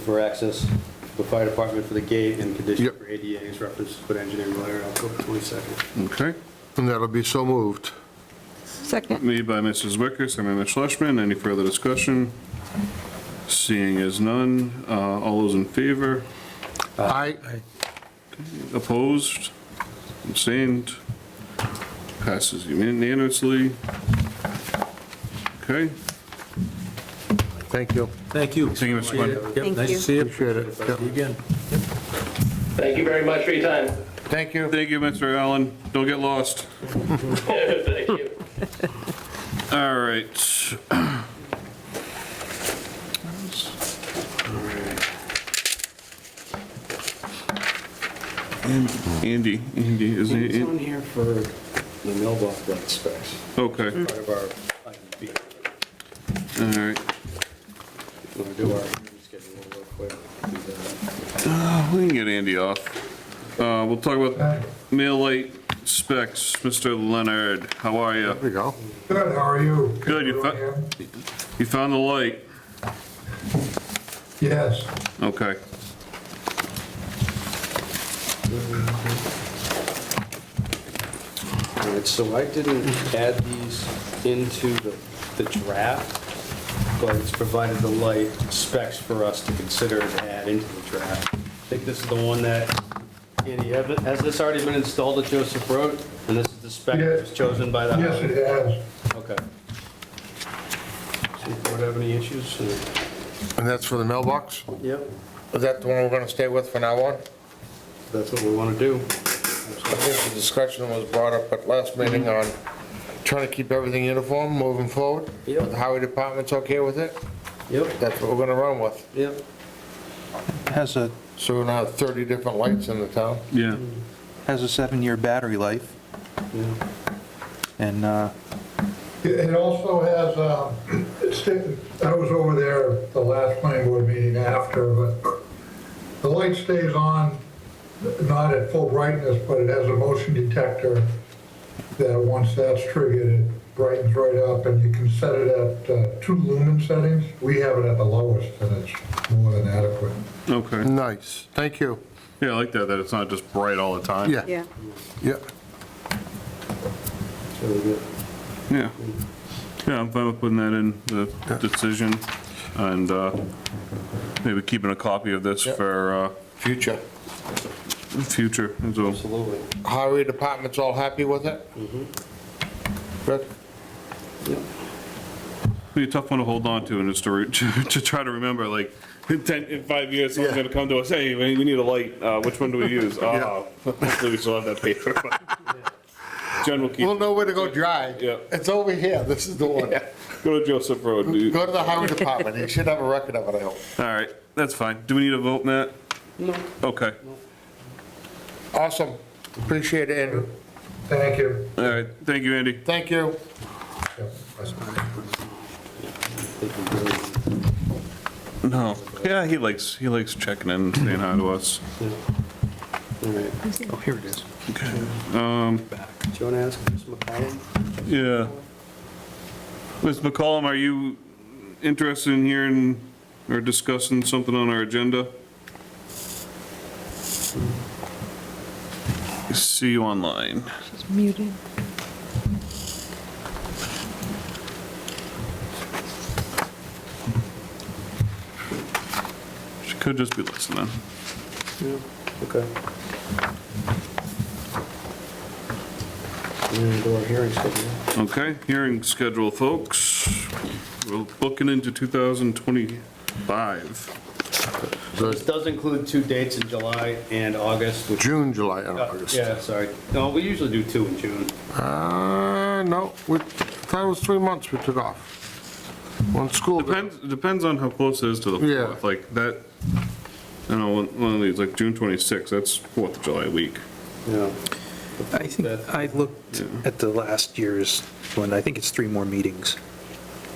for access, the fire department for the gate, and condition Yep. for ADA is reference to put engineering letter, October 22nd. Okay, and that'll be so moved. Second. Made by Mrs. Wicker, second by Ms. Schlesman. Any further discussion? Seeing as none, uh, all those in favor? Aye, Opposed? Abstained? Passes unanimously. Okay, thank you, Thank you. thank you, Mr. Quinn. Yep, nice you. to see you. appreciate it. See Yep. you again. Thank you very much for your time. Thank you. Thank you, Mr. Allen. Don't get lost. Thank you. All right. Andy, Andy, is It's he, on here for the mailbox light specs, okay, part of our, item B. all right. we'll do our schedule real quick. Do that. Uh, We can get Andy off. Uh, We'll talk about mail light specs. Mr. Leonard, how are you? There you go. Good, how are you? Good, you fo- You found the light? Yes, Okay. All right, so I didn't add these into the, the draft, but it's provided the light specs for us to consider to add into the draft. I think this is the one that, Andy, have- has this already been installed at Joseph Road? And this is the spec that was chosen by the yes, highway? it has. Okay. See if board have any issues? or- And that's for the mailbox? Yep, Is that the one we're gonna stay with for now on? that's what we want to do. I think the discussion was brought up at last meeting on trying to keep everything uniform moving forward. Yeah. The highway department's okay with it, Yep, that's what we're gonna run with. yep. Has a, So we're gonna have 30 different lights in the town. Yeah. has a seven-year battery life, yeah. and uh, It it also has, um, it's, I was over there at the last planning board meeting after, but the light stays on, not at full brightness, but it has a motion detector that once that's triggered, it brightens right up, and you can set it at uh, two lumen settings. We have it at the lowest, and it's more than adequate. Okay. Nice, thank you. Yeah, I like that, that it's not just bright all the time. Yeah, Yeah. yeah. So we get- Yeah. Yeah, I'm fine with putting that in the decision and uh, maybe keeping a copy of this Yep. for Future. uh, future as well. Absolutely. Highway department's all happy with it? Good. Be a tough one to hold on to and it's to, re- to to try to remember, like, in 10, in five years, someone's Yeah. gonna come to us, hey, we we need a light, uh, which one do we use? Ah, Hopefully we still have that paper. Jen will keep, We'll know where to go dry. Yeah. It's over here, this is the one. go to Joseph Road, dude. All Go to the highway department, you should have a record of it, I hope. right, that's fine. Do we need a vote, Matt? No. Okay, Awesome, appreciate it, Andrew. Thank you. all right, thank you, Andy. Thank you. No, yeah, he likes, he likes checking in, saying hi to us. All right. Um, Oh, here it is. Do you want to ask Ms. McCollum? Yeah. Ms. McCollum, are you interested in hearing or discussing something on our agenda? See you online. She's muted. She could just be listening. Yeah, okay. do our hearing schedule. Okay, hearing schedule, folks. We're booking into 2025. This does include two dates in July and August, which, June, July, and uh, August. yeah, sorry. No, we usually do two in June. Uh, no, we, that was three months we took off. One school, Depends, depends on how close it is to the Yeah. 4th. Like that, I don't know, one- one of these, like June 26th, that's 4th of July week. Yeah. I think, I looked at the last year's one, I think it's three more meetings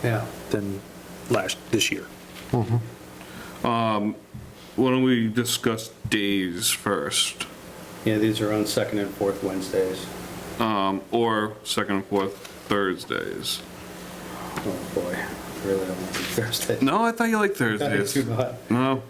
Yeah. than last, this year. Why don't we discuss days first? Yeah, these are on second and fourth Wednesdays. Um, or second and fourth Thursdays. Oh, boy. really, I don't like Thursday. No, I thought you liked Thursdays. Too much. No.